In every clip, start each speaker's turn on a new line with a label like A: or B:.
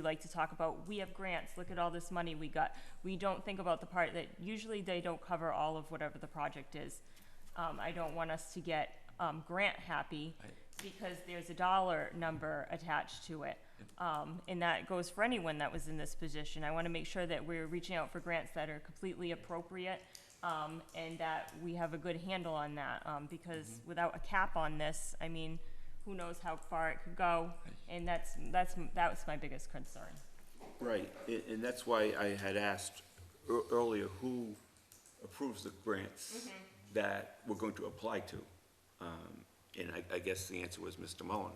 A: like to talk about, we have grants, look at all this money we got. We don't think about the part that usually they don't cover all of whatever the project is. Um, I don't want us to get, um, grant happy because there's a dollar number attached to it. Um, and that goes for anyone that was in this position. I want to make sure that we're reaching out for grants that are completely appropriate, um, and that we have a good handle on that, um, because without a cap on this, I mean, who knows how far it could go? And that's, that's, that's my biggest concern.
B: Right, and, and that's why I had asked ear- earlier who approves the grants that we're going to apply to. Um, And I, I guess the answer was Mr. Mullen,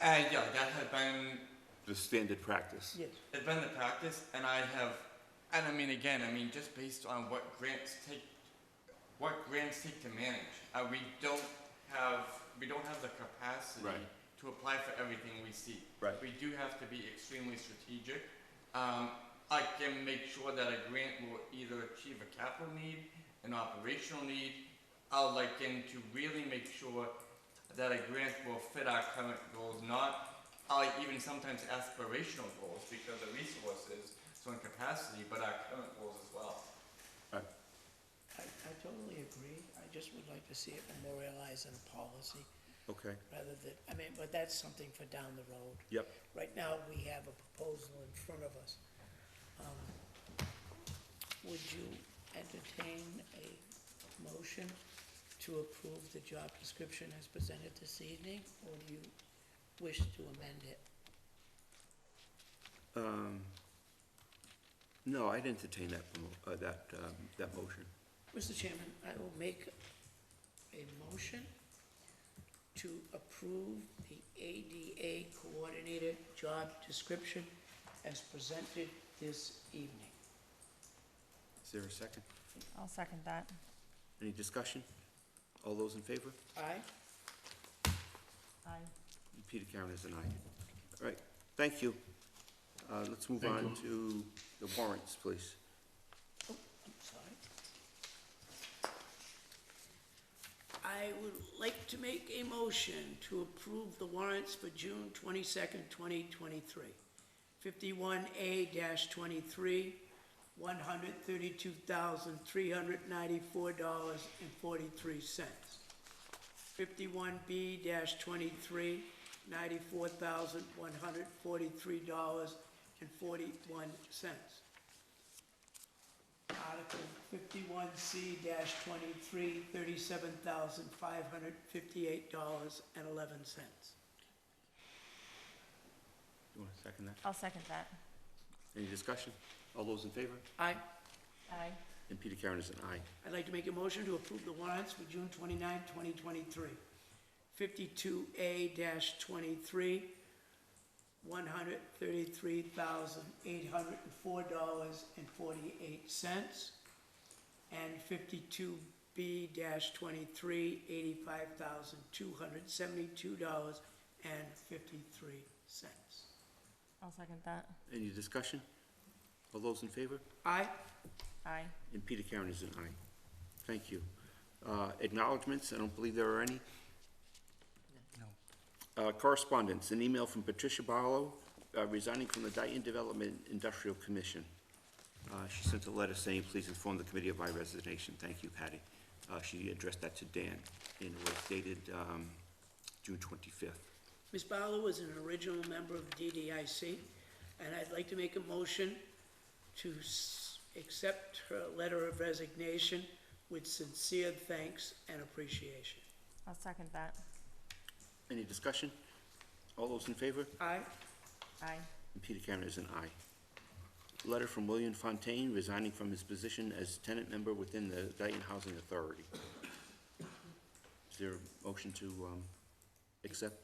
C: Uh, yeah, that had been
B: the standard practice.
D: Yes.
C: had been the practice, and I have, and I mean again, I mean just based on what grants take, what grants take to manage. Uh, we don't have, we don't have the capacity
B: Right.
C: to apply for everything we see.
B: Right.
C: We do have to be extremely strategic. Um, I can make sure that a grant will either achieve a capital need, an operational need. I'll like in to really make sure that a grant will fit our current goals, not I like even sometimes aspirational goals because of resources, so in capacity, but our current goals as well.
B: Uh,
D: I, I totally agree. I just would like to see it memorialized in a policy
B: Okay,
D: rather than, I mean, but that's something for down the road.
B: yep,
D: Right now, we have a proposal in front of us. Um, Would you entertain a motion to approve the job description as presented this evening, or do you wish to amend it?
B: um, no, I'd entertain that, mo- uh, that, um, that motion.
D: Mr. Chairman, I will make a motion to approve the ADA Coordinator job description as presented this evening.
B: Is there a second?
A: I'll second that.
B: Any discussion? All those in favor?
D: Aye?
A: Aye.
B: Peter Karen is an aye. All right, thank you. Uh, let's move on to the warrants, please.
D: Oh, I'm sorry. I would like to make a motion to approve the warrants for June twenty-second, twenty twenty-three. Fifty-one A twenty-three, one hundred thirty-two thousand, three hundred ninety-four dollars and forty-three cents. Fifty-one B twenty-three, ninety-four thousand, one hundred forty-three dollars and forty-one cents. Article fifty-one C dash twenty-three, thirty-seven thousand five hundred fifty-eight dollars and eleven cents.
B: You want to second that?
A: I'll second that.
B: Any discussion? All those in favor?
D: Aye.
A: Aye.
B: And Peter Karen is an aye.
D: I'd like to make a motion to approve the warrants for June 29, twenty-three. Fifty-two A dash twenty-three, one hundred thirty-three thousand eight hundred and four dollars and forty-eight cents. And fifty-two B dash twenty-three, eighty-five thousand two hundred seventy-two dollars and fifty-three cents.
A: I'll second that.
B: Any discussion? All those in favor?
D: Aye?
A: Aye.
B: And Peter Karen is an aye. Thank you. Uh, Acknowledgements, I don't believe there are any. No. Correspondence, an email from Patricia Barlow uh, resigning from the Dayton Development Industrial Commission. Uh, She sent a letter saying, please inform the committee of my resignation. Thank you, Patty. Uh, She addressed that to Dan, and it was dated um, June 25th.
D: Ms. Barlow was an original member of DDIC, and I'd like to make a motion to s- accept her letter of resignation with sincere thanks and appreciation.
A: I'll second that.
B: Any discussion? All those in favor?
D: Aye?
A: Aye.
B: And Peter Cameron is an aye. Letter from William Fontaine resigning from his position as tenant member within the Dayton Housing Authority. Is there a motion to um, accept?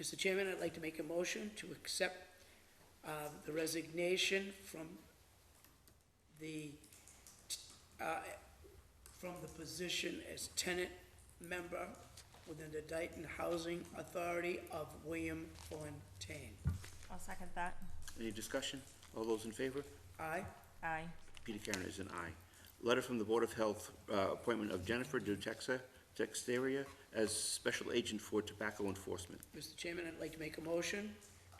D: Mr. Chairman, I'd like to make a motion to accept uh, the resignation from the, uh, from the position as tenant member within the Dayton Housing Authority of William Fontaine.
A: I'll second that.
B: Any discussion? All those in favor?
D: Aye?
A: Aye.
B: Peter Cameron is an aye. Letter from the Board of Health, uh, appointment of Jennifer Dutexa Texteria as special agent for tobacco enforcement.
D: Mr. Chairman, I'd like to make a motion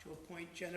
D: to appoint Jennifer